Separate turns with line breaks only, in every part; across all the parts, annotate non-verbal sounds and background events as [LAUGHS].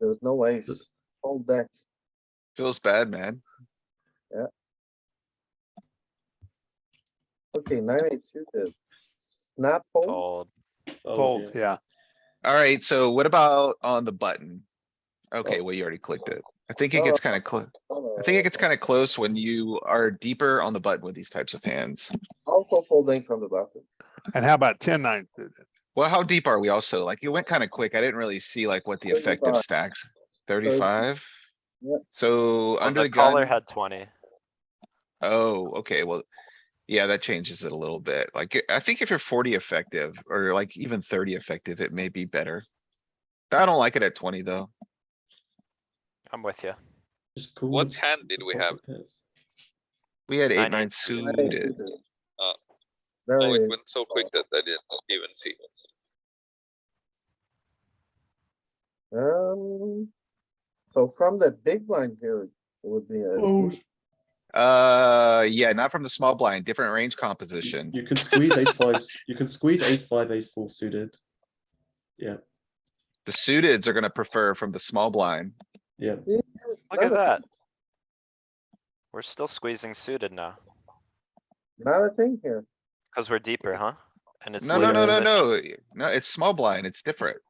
There's no ace. Old deck.
Feels bad, man.
Okay, nine, eight suited. Snap fold,
Fold.
Oh,
Fold, yeah.
Alright, so what about on the button?
Oh.
Okay, well, you already clicked it. I think it gets kinda close.
Oh,
I think it gets kinda close when you are deeper on the button with these types of hands.
also folding from the bottom.
And how about ten nine suited?
Well, how deep are we also? Like, it went kinda quick. I didn't really see like what the effective
35.
stacks, thirty-five?
Yep.
So
Well,
under
the
the
caller
gun,
had twenty.
oh, okay, well, yeah, that changes it a little bit. Like, I think if you're forty effective or like even thirty effective, it may be better. I don't like it at twenty, though.
I'm with you.
Just cool.
What hand did we have?
We had eight,
Nine,
nine
Nine, eight
suited.
suited.
Uh, Oh, it
Very,
went so quick that I didn't even see.
um, so from the big blind here, it would be a,
Oh,
Uh, yeah, not from the small blind, different range composition.
you can squeeze ace five, you can squeeze ace five, ace four suited.
The suiteds are gonna prefer from the small blind.
Yeah,
Look at that. We're still squeezing suited now,
not a thing here.
cuz we're deeper, huh? And it's.
No, no, no, no,
literally-
no. No, it's small blind. It's different.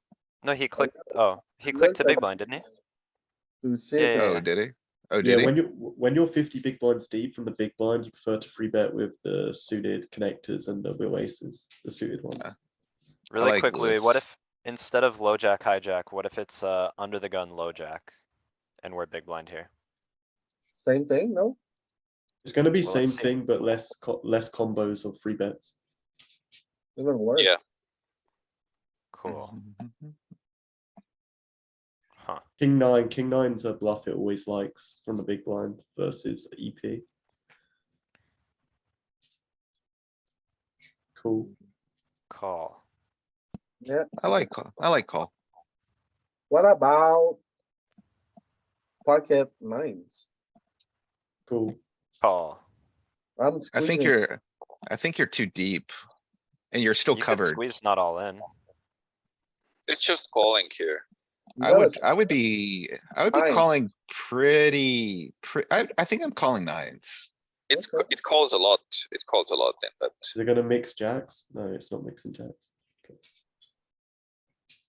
No, he clicked, oh, he clicked to
Look
big
at-
blind, didn't he?
To see.
Yeah,
if
Oh,
it's-
did he? Oh,
yeah.
did he?
When you when you're fifty big blinds deep from the big blind, you prefer to free bet with the suited connectors and the real aces, the suited ones.
Really
like
quick, Louis, what
this.
if, instead of low jack, hijack, what if it's, uh, under the gun, low jack? And we're big blind here.
Same thing, no?
It's going to be
Well,
same
let's see.
thing, but less co- less combos of free bets.
Even worse.
Yeah.
Cool, huh?
King nine, king nine's a bluff it always likes from the big blind versus E EP. Cool.
Call.
Yeah,
I like, call- I like call.
what about pocket nines?
Cool.
Call.
I'm
I think
squeezing.
you're, I think you're too deep. And you're still
You could
covered.
Squeeze not all in.
It's just calling here.
You
I
gotta
would, I would be, I would be
Nine.
calling pretty, pre, I, I think I'm calling nines.
It's, c- it calls a lot. It calls a lot in that.
Is it going to mix jacks? No, it's not mixing jacks.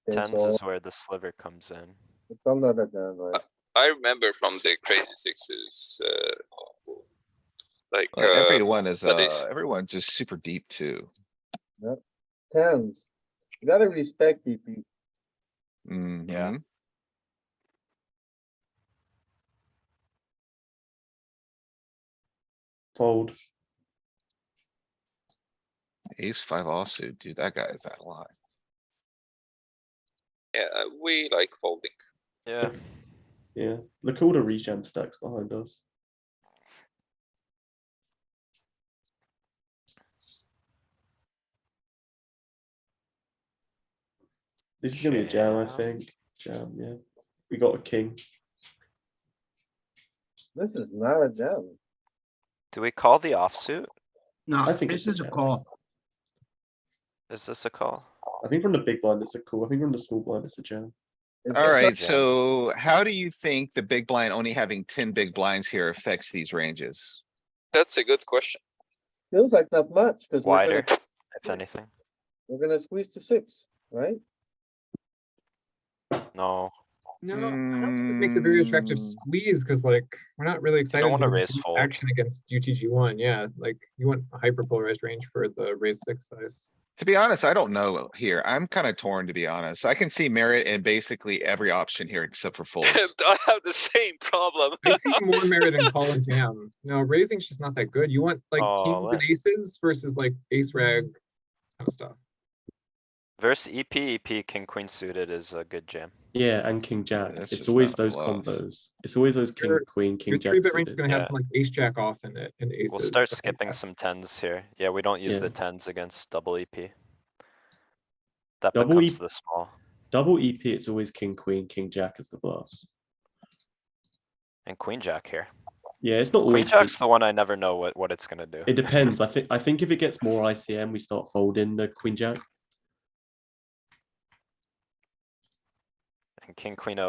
say,
Tens
so
is where the sliver comes in.
It's under the gun, right?
I remember from the crazy sixes, uh, like,
Like,
uh,
Everyone is,
but it's-
uh, everyone's just super deep too.
Tens. You gotta respect DP.
Mhm.
Fold.
Ace five offsuit, dude, that guy is out of line.
yeah, we like folding.
Yeah,
Yeah. Look at all the rejam stacks behind us. This is gonna be a jam, I
Jam.
think. Jam, yeah. We got a king.
This is not a jam.
do we call the
I
offsuit?
No,
think
this
it's
is a
okay.
call.
Is this a call?
I think from the big blind it's a cool. I think from the small blind it's a jam.
It's just not-
Alright,
jam.
so how do you think the big blind only having ten big blinds here affects these ranges?
That's a good question.
Feels like not much, cuz we're
Wider,
gonna,
if anything?
we're gonna squeeze to six, right?
No,
No, I don't think this makes a very attractive
Mm.
squeeze because like we're not really excited.
wanna
to
raise
use
fold.
Action against UTG one, yeah, like you want a hyper polarized range for the raise six size.
To be honest, I don't know here. I'm kinda torn, to be honest. I can see merit in basically every option here except for
[LAUGHS]
folds.
I have the same problem.
I see more merit
[LAUGHS]
in
[LAUGHS]
call and jam. No, raising's just not that good. You want like
Oh,
kings and
let-
aces versus like ace rag kind of stuff.
verse EP, EP, E king, queen suited is a good jam.
Yeah, and king jack.
that's
it's
just
always
not a
those
bluff.
combos. It's always those king
Your-
queen king
Your
jack.
three bit range is
suited.
gonna have
Yeah.
some like ace jack off in it and aces.
We'll start
stuff like
skipping
that.
some tens here. Yeah, we don't use
Yeah.
the tens against double EP. That
Double E
becomes
EP.
the small
Double EP. It's always king queen king jack as the bluffs.
and queen jack here.
Yeah, it's not
Queen
always.
jack's the one I never know what, what it's gonna do.
E It depends. I think I think if it gets more ICM, we start folding the queen jack.
And king, queen O